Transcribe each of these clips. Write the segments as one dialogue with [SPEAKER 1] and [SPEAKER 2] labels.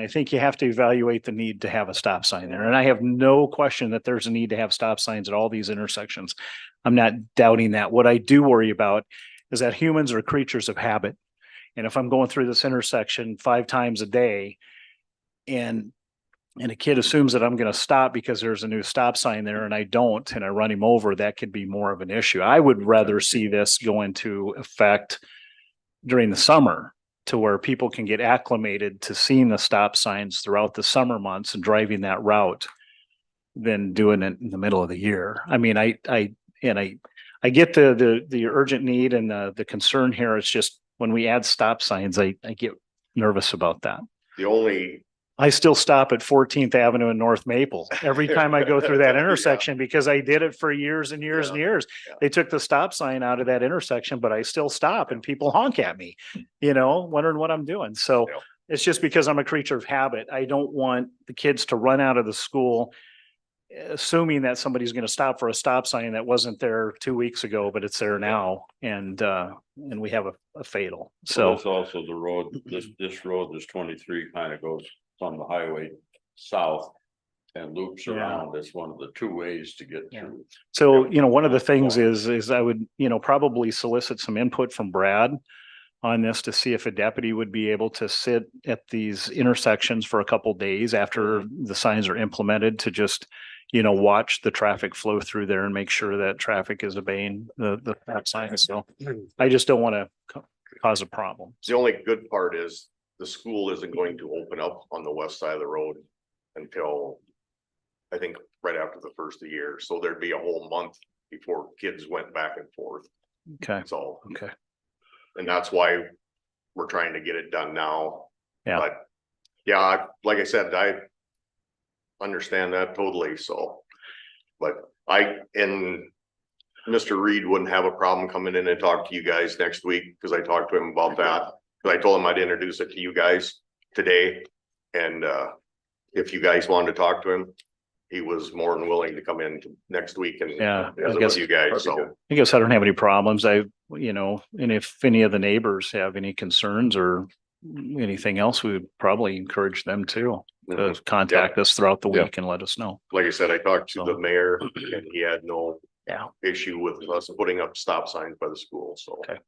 [SPEAKER 1] I think you have to evaluate the need to have a stop sign there. And I have no question that there's a need to have stop signs at all these intersections. I'm not doubting that. What I do worry about is that humans are creatures of habit. And if I'm going through this intersection five times a day and and a kid assumes that I'm going to stop because there's a new stop sign there and I don't, and I run him over, that could be more of an issue. I would rather see this go into effect during the summer to where people can get acclimated to seeing the stop signs throughout the summer months and driving that route than doing it in the middle of the year. I mean, I, I, and I, I get the, the, the urgent need and the, the concern here. It's just when we add stop signs, I, I get nervous about that.
[SPEAKER 2] The only,
[SPEAKER 1] I still stop at Fourteenth Avenue and North Maple every time I go through that
[SPEAKER 2] Yeah.
[SPEAKER 1] intersection because I did it for years and years and
[SPEAKER 2] Yeah.
[SPEAKER 1] years.
[SPEAKER 2] Yeah.
[SPEAKER 1] They took the stop sign out of that intersection, but I still stop and people honk at me, you know, wondering what I'm doing. So
[SPEAKER 2] Yeah.
[SPEAKER 1] it's just because I'm a creature of habit. I don't want the kids to run out of the school assuming that somebody's going to stop for a stop sign that wasn't there two weeks ago, but it's there now. And, uh, and we have a, a fatal.
[SPEAKER 3] Well,
[SPEAKER 1] So
[SPEAKER 3] It's also the road, this, this road, this twenty-three kind of goes from the highway south and loops
[SPEAKER 1] Yeah.
[SPEAKER 3] around. It's one of the two ways to get
[SPEAKER 1] Yeah.
[SPEAKER 3] through.
[SPEAKER 1] So,
[SPEAKER 3] Yeah.
[SPEAKER 1] you know, one of the things
[SPEAKER 3] Yeah.
[SPEAKER 1] is, is I would, you know, probably solicit some input from Brad on this to see if a deputy would be able to sit at these intersections for a couple days after the signs are implemented to just, you know, watch the traffic flow through there and make sure that traffic is obeying the, the stop signs. So I just don't want to cause a problem.
[SPEAKER 2] the only good part is the school isn't going to open up on the west side of the road until I think right after the first of the year. So there'd be a whole month before kids went back and forth.
[SPEAKER 1] Okay.
[SPEAKER 2] That's all.
[SPEAKER 1] Okay.
[SPEAKER 2] And that's why we're trying to get it done now.
[SPEAKER 1] Yeah.
[SPEAKER 2] But yeah, I- like I said, I understand that totally. So, but I, and Mr. Reed wouldn't have a problem coming in and talk to you guys next week because I talked to him about that. Because I told him I'd introduce it to you guys today. And uh, if you guys wanted to talk to him, he was more than willing to come in next week and
[SPEAKER 1] Yeah, I
[SPEAKER 2] visit
[SPEAKER 1] guess-
[SPEAKER 2] with you guys. So.
[SPEAKER 1] I guess I don't have any problems. I, you know, and if any of the neighbors have any concerns or anything else, we would probably encourage them too.
[SPEAKER 2] mhm.
[SPEAKER 1] to uh, contact us throughout the
[SPEAKER 3] Yeah.
[SPEAKER 1] week and let us know.
[SPEAKER 2] like I said, I talked to
[SPEAKER 1] So-
[SPEAKER 2] the mayor and he had no.
[SPEAKER 1] Yeah.
[SPEAKER 2] Issue with us putting up stop signs by the school, so.
[SPEAKER 1] Okay.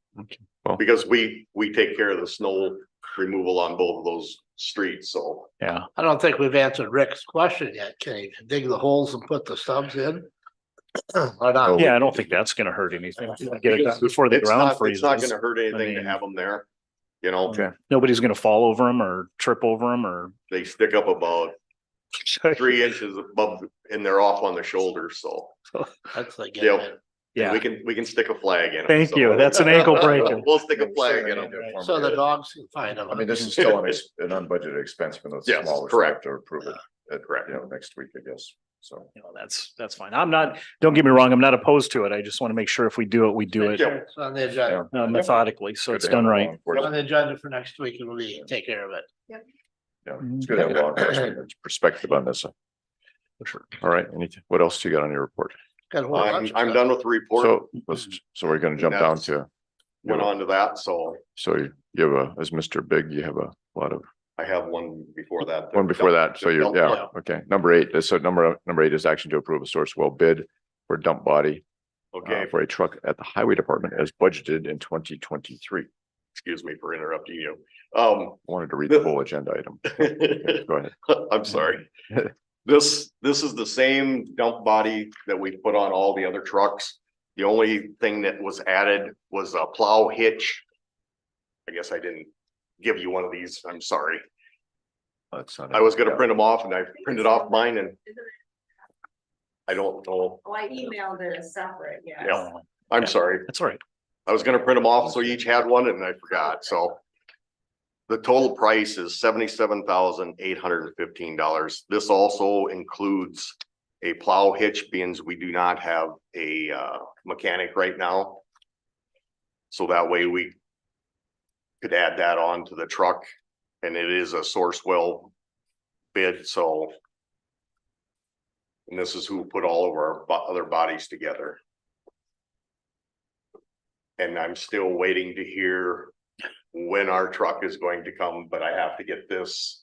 [SPEAKER 3] Well-
[SPEAKER 2] Because we, we take care of the snow removal on both of those streets, so.
[SPEAKER 1] Yeah,
[SPEAKER 4] I don't think we've answered Rick's question yet. Can you dig the holes and put the subs in? Or not?
[SPEAKER 1] yeah, I don't think that's gonna hurt anything. Get it done before the
[SPEAKER 2] It's
[SPEAKER 1] ground
[SPEAKER 2] not, it's not
[SPEAKER 1] freezes.
[SPEAKER 2] gonna hurt anything to
[SPEAKER 1] mean-
[SPEAKER 2] have them there, you know,
[SPEAKER 1] Okay. Nobody's gonna fall over them or trip over them or.
[SPEAKER 2] they stick up about three inches above and they're off on the shoulder, so.
[SPEAKER 4] That's like.
[SPEAKER 2] Yeah.
[SPEAKER 4] getting
[SPEAKER 2] and We
[SPEAKER 1] Yeah,
[SPEAKER 2] can, we can stick a flag in 'em,
[SPEAKER 1] Thank
[SPEAKER 2] so.
[SPEAKER 1] you. That's an ankle breaker.
[SPEAKER 2] We'll stick a flag in them.
[SPEAKER 4] it. So the dogs can find them.
[SPEAKER 5] I mean, this is still an, ex- an unbudgeted expense, but it's
[SPEAKER 2] Yes,
[SPEAKER 5] small, we have
[SPEAKER 2] correct.
[SPEAKER 5] to approve it, at,
[SPEAKER 2] Correct.
[SPEAKER 5] you know, next week, I guess, so.
[SPEAKER 1] you know, that's, that's fine. I'm not, don't get me wrong, I'm not opposed to it. I just want to make sure if we do it, we do it
[SPEAKER 2] Yeah.
[SPEAKER 4] It's on the agenda,
[SPEAKER 1] uh, methodically, so
[SPEAKER 5] Good
[SPEAKER 1] it's
[SPEAKER 5] to have
[SPEAKER 1] done
[SPEAKER 5] law
[SPEAKER 1] right.
[SPEAKER 4] on
[SPEAKER 5] enforcement,
[SPEAKER 4] the agenda for next week and we take care of it.
[SPEAKER 5] Yeah, it's good to have law enforcement perspective on this.
[SPEAKER 1] For sure.
[SPEAKER 5] All right, anything, what else you got on your report?
[SPEAKER 4] Got a whole
[SPEAKER 2] I'm,
[SPEAKER 4] bunch of
[SPEAKER 2] I'm
[SPEAKER 4] stuff.
[SPEAKER 2] done with the report,
[SPEAKER 5] So, let's, so we're gonna jump down to,
[SPEAKER 2] went on to that, so.
[SPEAKER 5] so you you have a, as Mr. Big, you have a lot of,
[SPEAKER 2] I have one before that.
[SPEAKER 5] one before that, so you,
[SPEAKER 2] Dump- dump
[SPEAKER 5] yeah, okay. Number eight, so number, number eight is action to approve a source well bid for dump body
[SPEAKER 2] lot.
[SPEAKER 5] uh,
[SPEAKER 2] Okay,
[SPEAKER 5] for a truck at the highway department as budgeted in twenty twenty-three.
[SPEAKER 2] excuse me for interrupting you. Um,
[SPEAKER 5] Wanted to read the whole agenda item. Go ahead.
[SPEAKER 2] I'm sorry. This, this is the same dump body that we put on all the other trucks. The only thing that was added was a plow hitch. I guess I didn't give you one of these. I'm sorry.
[SPEAKER 5] That's not it.
[SPEAKER 2] I was gonna
[SPEAKER 5] Yeah.
[SPEAKER 2] print them off and I printed off mine and I don't know.
[SPEAKER 6] Oh, I emailed it as separate, yes.
[SPEAKER 2] Yeah, I'm sorry.
[SPEAKER 1] That's all right.
[SPEAKER 2] I was gonna print them off, so each had one and I forgot, so. The total price is seventy-seven thousand eight hundred and fifteen dollars. This also includes a plow hitch, being we do not have a uh mechanic right now. So that way we could add that on to the truck and it is a source well bid, so. And this is who put all of our bo- other bodies together. And I'm still waiting to hear when our truck is going to come, but I have to get this